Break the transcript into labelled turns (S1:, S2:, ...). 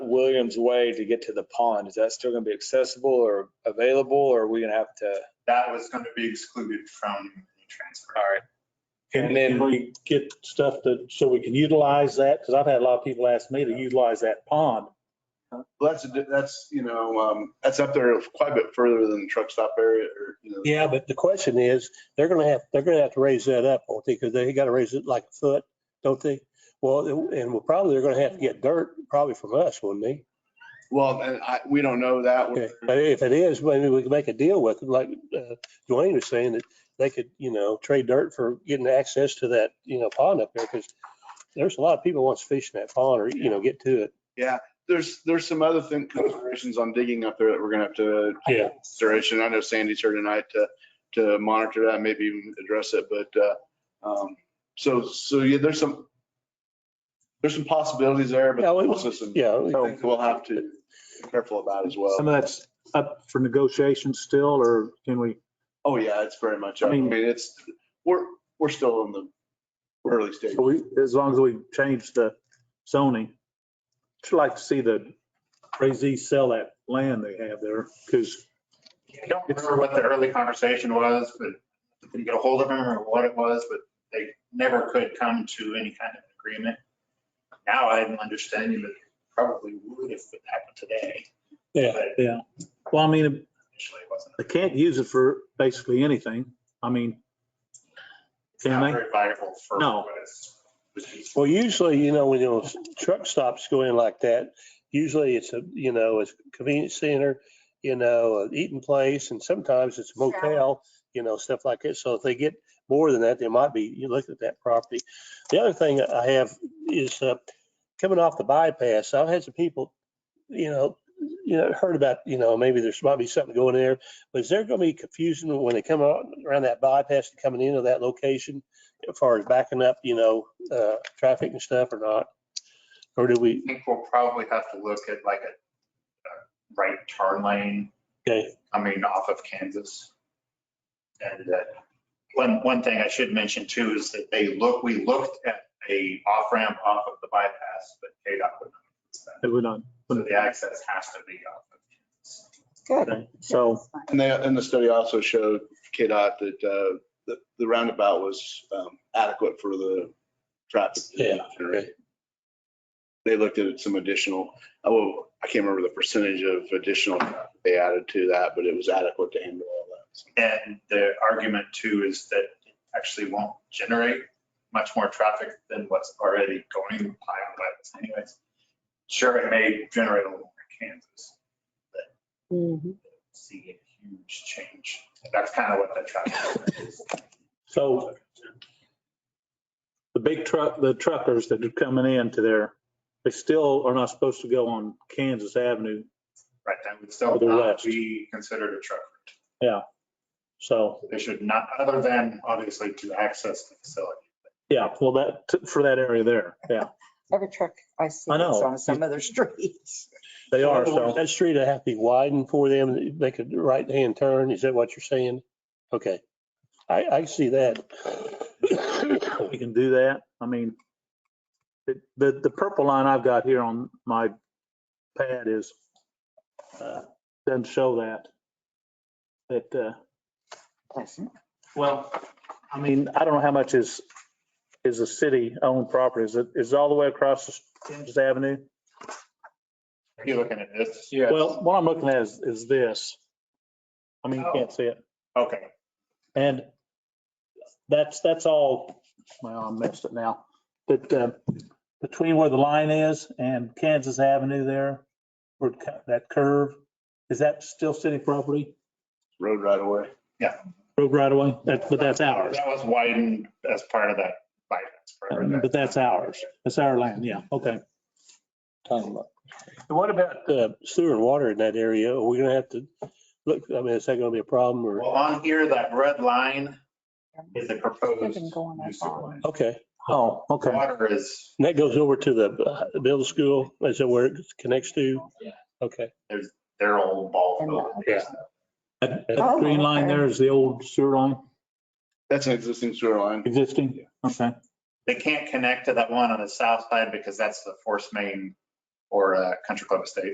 S1: Williams Way to get to the pond, is that still gonna be accessible or available, or are we gonna have to?
S2: That was going to be excluded from the transfer.
S1: All right.
S3: Can
S1: And then-
S3: we get stuff that, so we can utilize that? Because I've had a lot of people ask me to utilize that pond.
S4: Well, that's, a di- that's, you know, um, that's up there quite a bit further than the truck stop area or, you know.
S5: Yeah, but the question is, they're gonna have, they're gonna have to raise that up, won't they? Because they gotta raise it like a foot, don't they? Well, and we'll probably, they're gonna have to get dirt probably from us, wouldn't they?
S4: Well, and I, we don't know that.
S5: Okay,
S4: one.
S5: But if it is, maybe we can make a deal with it, like uh, Dwayne was saying, that they could, you know, trade dirt for getting access to that, you know, pond up there, because there's a lot of people wants to fish in that pond or, you know, get to it.
S4: There's, there's some other thing, considerations on digging up there that we're gonna have to.
S5: Yeah.
S4: Consideration. I know Sandy's here tonight to, to monitor that, maybe even address it, but, uh, um, so, so yeah, there's some, there's some possibilities there, but
S5: Yeah, we-
S4: also some
S5: Yeah,
S4: things we'll have to be careful about as well.
S3: Some of that's up for negotiation still, or can we?
S4: Oh, yeah, it's very much,
S3: I
S4: I mean,
S3: mean-
S4: it's, we're, we're still in the early stages.
S3: So we, as long as we change the zoning, I'd like to see the crazy sell that land they have there, because
S2: I don't remember what the early conversation was, but didn't get a hold of them or what it was, but they never could come to any kind of agreement. Now I'm understanding that probably would if it happened today.
S5: Yeah.
S2: But
S3: well, I mean,
S2: Initially, it wasn't.
S3: they can't use it for basically anything. I mean,
S2: It's
S3: Can
S2: not
S3: they?
S2: very viable for.
S3: No.
S2: what it's- it's-
S5: Well, usually, you know, when those truck stops go in like that, usually it's a, you know, it's a convenience center, you know, an eating place, and sometimes it's a motel, you know, stuff like that. So if they get more than that, they might be, you look at that property. The other thing I have is uh, coming off the bypass, I've had some people, you know, you know, heard about, you know, maybe there's might be something going there, but is there going to be confusion when they come out around that bypass and coming into that location as far as backing up, you know, uh, traffic and stuff or not? Or do we,
S2: I think we'll probably have to look at like a a right turn lane
S5: okay,
S2: coming off of Kansas. And uh, one, one thing I should mention too is that they look, we looked at a off-ramp off of the bypass, but KDOT would not. use that.
S3: it would not.
S2: So the access has to be off of Kansas.
S3: Okay, So,
S4: And they, and the study also showed KDOT that, uh, the, the roundabout was, um, adequate for the traffic.
S5: Yeah, okay.
S4: They looked at some additional, oh, I can't remember the percentage of additional they added to that, but it was adequate to handle all that. So,
S2: And the argument too is that it actually won't generate much more traffic than what's already going by on bypass anyways. Sure, it may generate a little more in Kansas, but see a huge change. That's kind of what the traffic is.
S3: so the big truck, the truckers that are coming into there, they still are not supposed to go on Kansas Avenue.
S2: Right, that would still
S3: Or the
S2: not
S3: west.
S2: be considered a truck route.
S3: So,
S2: They should not, other than obviously to access the facility.
S3: yeah, well, that, for that area there, yeah,
S6: Every truck I see
S3: I know.
S6: is on some other streets.
S3: they are, so.
S5: that street would have to be widened for them, to make a right-hand turn, is that what you're saying? Okay, I, I see that.
S3: we can do that. I mean, it- the, the purple line I've got here on my pad is, uh, doesn't show that. That, uh, well, I mean, I don't know how much is, is a city-owned property. Is it, is it all the way across Kansas Avenue?
S2: Are you looking at this?
S1: Yeah.
S3: Well, what I'm looking at is, is this. I mean, you can't see it.
S2: Okay,
S3: And that's, that's all, well, I missed it now. But uh, between where the line is and Kansas Avenue there, where it cut- that curve, is that still city property?
S4: Road right away.
S3: Road right away? That, but that's ours.
S2: that was widened as part of that bypass. part of that.
S3: But that's ours. That's our land, yeah, okay.
S5: Talking about. And what about uh, sewer and water in that area? Are we gonna have to, look, I mean, is that gonna be a problem or?
S2: Well, on here, that red line is a proposed.
S6: Even going
S2: new
S6: up
S2: sewer
S6: on.
S2: line.
S5: Okay,
S3: Oh, okay.
S2: Water is,
S5: and that goes over to the uh, middle school, is that where it connects to? Okay,
S2: their old ball field.
S5: Yeah.
S3: That that green line there is the old sewer line
S4: That's an existing sewer line.
S3: existing? Okay.
S2: They can't connect to that one on the south side because that's the force main or uh, Country Club Estates.